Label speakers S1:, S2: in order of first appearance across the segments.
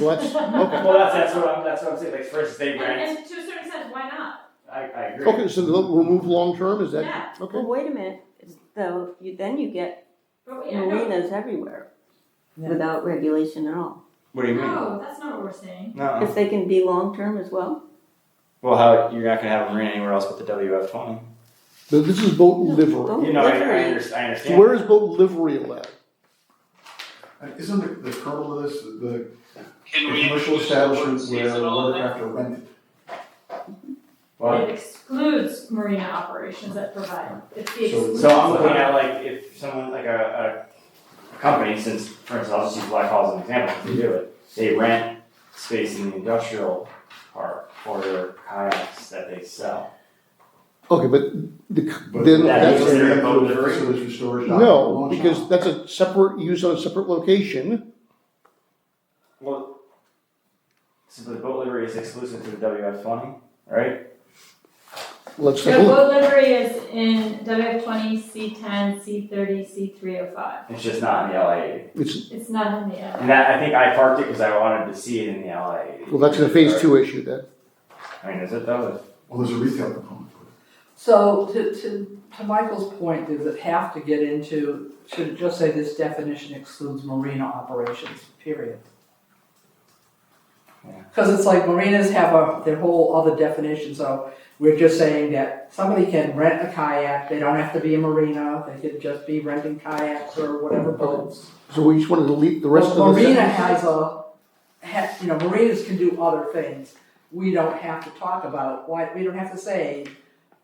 S1: Well, that's, okay.
S2: Well, that's, that's what I'm, that's what I'm saying, like, first they
S3: And,
S2: rent,
S3: and to a certain extent, why not?
S2: I, I agree.
S1: Okay, so we'll we'll move long-term, is that,
S3: Yeah,
S1: okay?
S4: Well, wait a minute, It's- though, you, then you get
S3: but we, I know,
S4: marinas everywhere
S5: Yeah.
S4: without regulation at all.
S2: What do you mean?
S3: no, that's not what we're saying.
S2: No,
S4: If they can be long-term as well,
S2: well, how, you're not gonna have a marina anywhere else but the WF twenty.
S1: But this is boat livery.
S3: Oh,
S4: Boat
S2: You know, I, I
S4: livery.
S2: under- I
S1: So
S2: understand,
S1: where is boat livery allowed?
S6: Uh, Isn't the, the kernel of this, the the
S7: Can we
S6: commercial
S7: include the word
S6: establishments where
S7: seasonal in there?
S6: watercraft are rented?
S2: well,
S3: It excludes marina operations that provide, it's the
S6: So-
S3: exclusion.
S2: So I'm looking at like if someone like a, a company, since for instance, I'll just use Black Hall as an example, they do it, they rent space in the industrial park for their kayaks that they sell.
S1: Okay, but the,
S6: But
S1: then
S2: That
S1: that's,
S2: is
S6: doesn't
S2: considered a
S6: include
S2: boat livery?
S6: Facilities for storage. dock,
S1: no,
S6: lawn
S1: because
S6: shop.
S1: that's a separate use on a separate location.
S2: Well, so the boat livery is exclusive to the WF twenty, right?
S1: Let's take a
S3: So
S1: look.
S3: boat livery is in WF twenty, C ten, C thirty, C three oh five.
S2: It's just not in the LA eighty.
S1: It's,
S3: It's not in the
S2: And
S3: other.
S2: that, I think I parked it because I wanted to see it in the LA eighty.
S1: well, that's a phase two issue then.
S2: I mean, is it though?
S6: Well, there's a retail component.
S5: So to, to, to Michael's point, does it have to get into, should it just say this definition excludes marina operations, period?
S2: Yeah.
S5: Cause it's like marinas have a, their whole other definition, so we're just saying that somebody can rent a kayak, they don't have to be a marina, they could just be renting kayaks or whatever boats.
S1: So we just want to delete the rest of
S5: But
S1: the
S5: Marina
S1: sentence.
S5: has a, ha you know, marinas can do other things. We don't have to talk about, why, we don't have to say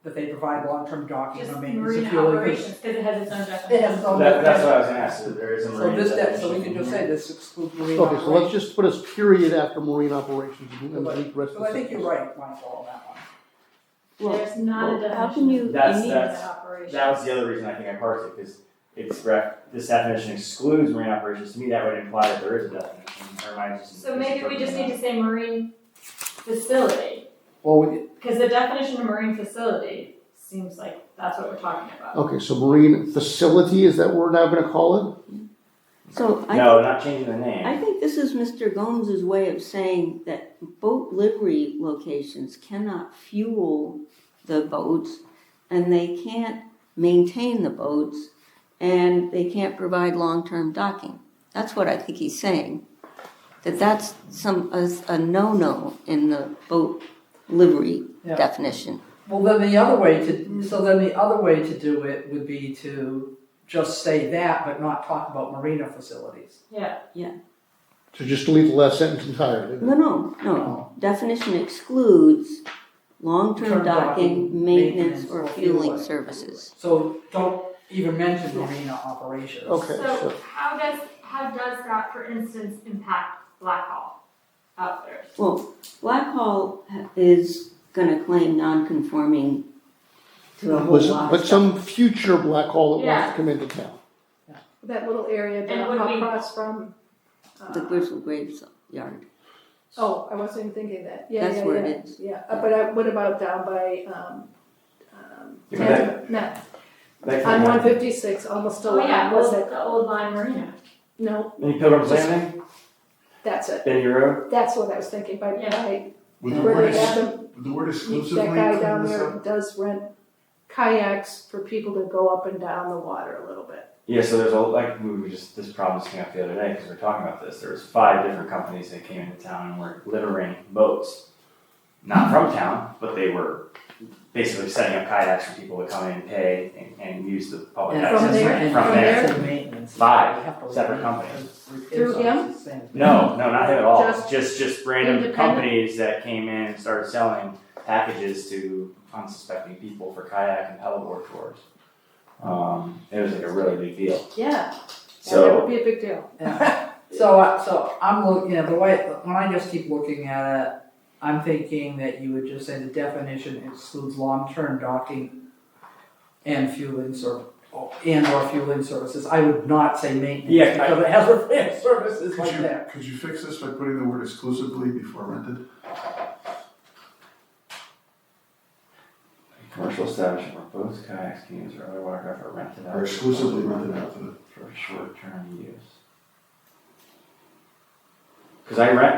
S5: that they provide long-term docking
S3: Just
S5: or maintenance of
S3: marina
S5: fuel. and-
S3: operations, because it has its own
S5: It
S3: definition.
S5: has no.
S2: That, that's what I was gonna ask, so there is a
S5: So
S2: marina.
S5: this, that, so
S2: definition
S5: we can
S2: in
S5: just
S2: here.
S5: say this excludes marina
S1: Okay, so let's
S5: operations.
S1: just put a period after marine operations and delete the rest of
S5: So
S1: the
S5: I think you're
S1: sentence.
S5: right, Michael, on that one.
S4: well,
S3: There's not a
S4: well,
S3: definition.
S4: how can you, you
S2: That's-
S4: need-
S2: that's-
S3: operation.
S2: That was the other reason I think I parsed it, because it's ref, this definition excludes marine operations, to me, that would imply that there is a definition, or am I just?
S3: So maybe we just need to say marine facility,
S5: Well, we,
S3: because the definition of marine facility seems like that's what we're talking about.
S1: Okay, so marine facility, is that what we're now going to call it?
S4: so I
S2: No, not changing the
S4: I
S2: name,
S4: think this is Mr. Gomes's way of saying that boat livery locations cannot fuel the boats and they can't maintain the boats and they can't provide long-term docking. That's what I think he's saying. That that's some, a, a no-no in the boat livery
S5: Yeah.
S4: definition.
S5: well, then the other way to, so then the other way to do it would be to just say that, but not talk about marina facilities.
S3: Yeah,
S1: So just delete the last sentence entirely.
S4: No, no, no. Definition excludes
S5: Term
S4: long-term docking,
S5: docking,
S4: maintenance,
S5: maintenance,
S4: or
S5: or
S4: fueling
S5: fueling.
S4: services.
S5: So don't even mention marina operations.
S1: Okay,
S3: so
S1: so,
S3: how does, how does that, for instance, impact Blackhall outfitters?
S4: Well, Blackhall is gonna claim non-conforming to a whole lot of
S1: was-
S4: stuff.
S1: but some future black hole that wants
S3: Yeah.
S1: to come into town.
S8: That little area
S3: And
S8: that
S3: would we-
S8: across from. uh,
S4: The Gristle Graveyard,
S8: Oh, I wasn't even thinking that. Yeah,
S4: That's
S8: yeah,
S4: where it
S8: yeah,
S4: is.
S8: Yeah, Uh, but I, what about down by, um, um,
S2: Yeah, but
S8: no,
S2: Like
S8: on
S2: the-
S8: one fifty-six, almost
S3: Oh, yeah,
S8: along, was
S3: well,
S8: it?
S3: the old line marina.
S8: No,
S2: Any Pilgrim's Landing,
S8: that's it.
S2: Benny Road,
S8: That's what I was thinking by,
S3: Yeah.
S8: by,
S6: Would the
S8: where
S6: word,
S8: they
S6: ex-
S8: have them,
S6: would the word exclusively
S8: that guy down
S6: include this?
S8: there
S6: up?
S8: does rent kayaks for people to go up and down the water a little bit.
S2: yeah, so there's a, like, we were just, this problem just came up the other day, because we were talking about this, there was five different companies that came into town and were littering boats. Not from town, but they were basically setting up kayaks for people to come in, pay, and, and use the public
S5: And
S2: access.
S8: From there-
S5: and
S2: From there.
S5: and maintenance.
S2: Five
S5: You have to
S2: separate
S5: leave
S2: companies.
S5: because
S8: Through
S5: repairs
S8: him?
S5: are the same.
S2: No, no, not him at all. Just
S8: Just
S2: just, random
S8: independent?
S2: companies that came in and started selling packages to unsuspecting people for kayak and paddleboard tours. Um, it was like a really big deal.
S8: Yeah, and that would
S2: So
S8: be a big deal.
S5: Yeah. So, I- so I'm looking, you know, the way, when I just keep looking at it, I'm thinking that you would just say the definition excludes long-term docking and fueling serv, and or fueling services. I would not say
S2: Yeah, I-
S5: maintenance because it has repair services
S6: Could
S5: like
S6: you,
S5: that.
S6: could you fix this by putting the word exclusively before rented?
S2: commercial establishment where boats, kayaks, canoes, or other watercraft are rented out
S6: Or exclusively rented out to the
S2: for short term use. Because I rent